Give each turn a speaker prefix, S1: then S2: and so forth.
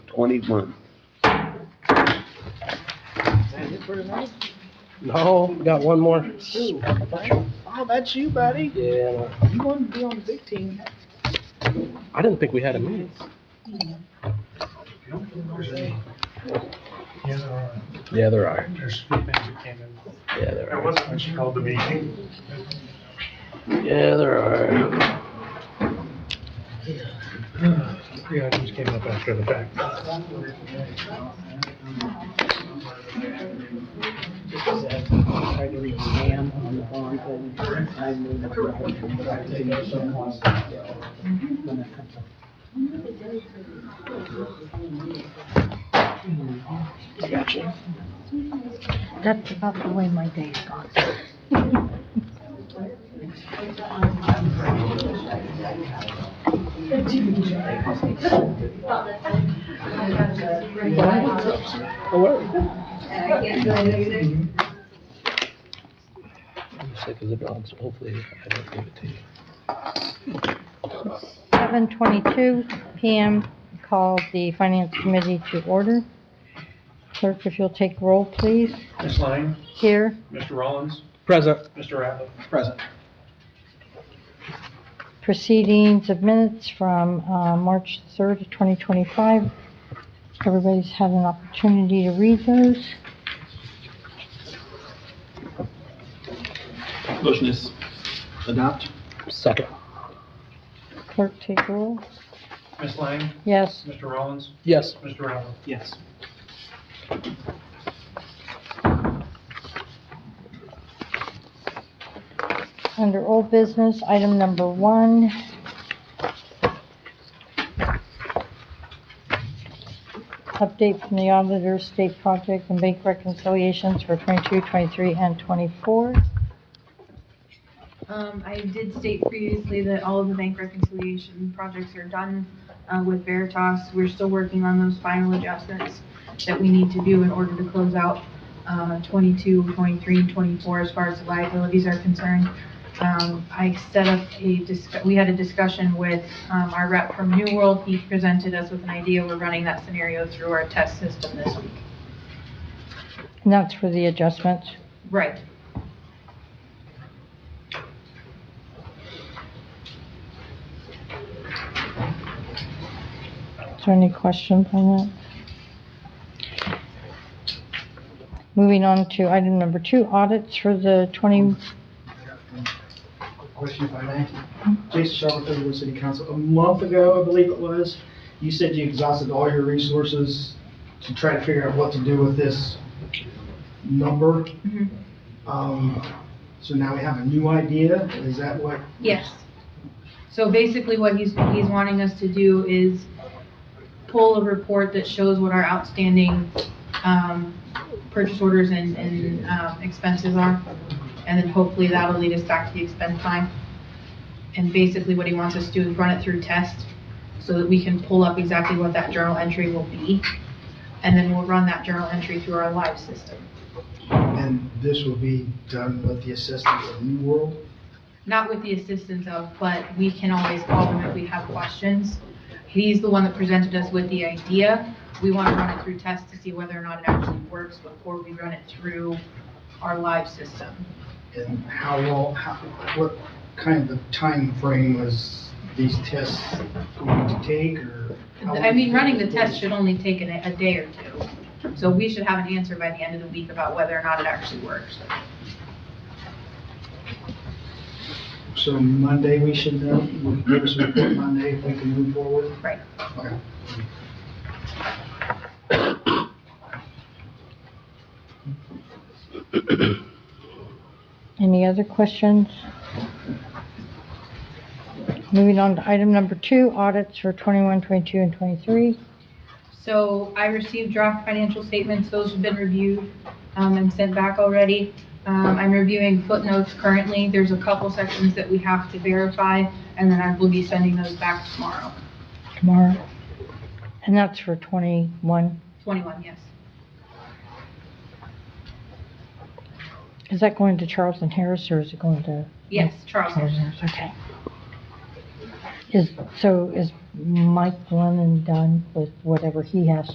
S1: twenty-one.
S2: Is it for tonight?
S3: No, got one more.
S2: Ooh, Oh, that's you, buddy.
S3: Yeah,
S2: You wanted to be on the big team.
S3: I didn't think we had a meeting. Yeah, there are.
S4: There's three things that came in.
S3: Yeah, there
S4: There
S3: are.
S4: wasn't much called the meeting.
S3: Yeah, there are.
S4: Three items came up after the fact.
S2: Tried to reach Sam on the phone, and I knew that I was going to have to do someone. Gotcha.
S5: That's about the way my day's gone.
S3: Oh, I'm sick as a dog, so hopefully I don't give it to you.
S5: Seven twenty-two PM, call the Finance Committee to order. Clerk, if you'll take roll, please.
S4: Ms. Lang,
S5: Here,
S4: Mr. Rollins,
S3: Present.
S4: Mr. Rattler.
S5: proceedings of minutes from, uh, March third, twenty twenty-five. Everybody's had an opportunity to read those.
S1: Motion is adopt.
S3: Second.
S5: Clerk, take roll.
S4: Ms. Lang,
S5: Yes,
S4: Mr. Rollins,
S3: Yes.
S4: Mr. Rattler.
S1: Yes.
S5: under old business, item number one. Update from the auditor, state project and bank reconciliations for 22, 23, and 24.
S6: Um, I did state previously that all of the bank reconciliation projects are done, uh, with Veritas. We're still working on those final adjustments that we need to do in order to close out, uh, 22, 23, and twenty-four as far as the liabilities are concerned. Um, I set up a disc, we had a discussion with, um, our rep from New World. He presented us with an idea. We're running that scenario through our test system this week.
S5: And that's for the adjustments.
S6: Right.
S5: Is there any questions on that? Moving on to item number two, audits for the 20,
S7: Quick Question if I may. Jason Shelton, Federal City Council, a month ago, I believe it was, you said you exhausted all your resources to try to figure out what to do with this number.
S6: Mhm.
S7: Um, so now we have a new idea, is that what?
S6: Yes. So basically what he's, he's wanting us to do is pull a report that shows what our outstanding, um, purchase orders and, and, um, expenses are. And then hopefully that'll lead us back to the expense line. And basically what he wants us to do is run it through test so that we can pull up exactly what that journal entry will be. And then we'll run that journal entry through our live system.
S7: And this will be done with the assistance of New World?
S6: not with the assistance of, but we can always call them if we have questions. He's the one that presented us with the idea. We want to run it through tests to see whether or not it actually works before we run it through our live system.
S7: And how long, how, what kind of time frame was these tests going to take or? how
S6: I mean, running the
S7: long-
S6: test should only take a, a day or two. So we should have an answer by the end of the week about whether or not it actually works.
S7: So Monday, we should know, we'll give us a report Monday if we can move forward?
S6: Right.
S7: Okay.
S5: any other questions? Moving on to item number two, audits for 21, 22, and 23.
S6: So I received draft financial statements, those have been reviewed um, and sent back already. Um, I'm reviewing footnotes currently, there's a couple sections that we have to verify, and then I will be sending those back tomorrow.
S5: tomorrow. And that's for 21.
S6: 21, yes.
S5: Is that going to Charles and Harris or is it going to?
S6: Yes, Charles.
S5: Charles and Harris, okay. Is, so is Mike Lennon done with whatever he has